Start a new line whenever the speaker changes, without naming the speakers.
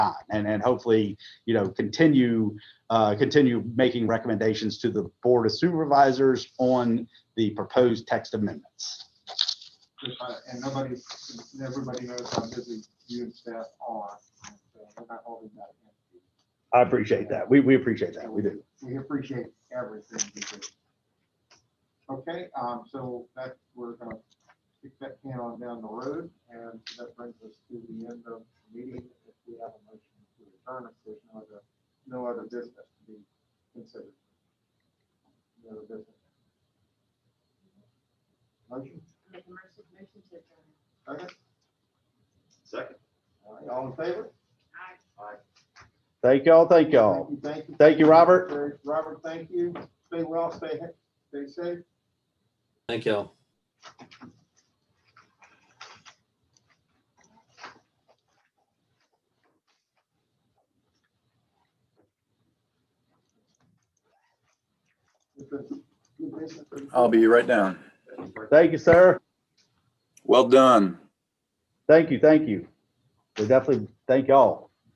time and, and hopefully, you know, continue, uh, continue making recommendations to the Board of Supervisors on the proposed text amendments.
Uh, And nobody, everybody knows how busy you and staff are. and so We're not holding that against you.
I appreciate that. We, we appreciate that. We do.
We appreciate everything you do. Okay, um, so that, we're gonna kick that can on down the road, and that brings us to the end of the meeting. If we have a motion to return, if there's no other, no other business to be considered. No other business. Motion,
Make a motion motion to adjourn.
second,
Second.
all right, all in favor?
Aye.
Thank y'all. Thank y'all.
Thank you.
Thank you, Robert.
Very- Robert, thank you. Stay well, stay, he- stay safe.
Thank y'all.
It's been good business.
I'll be right down.
Thank you, sir.
Well done.
Thank you. Thank you. We definitely thank y'all.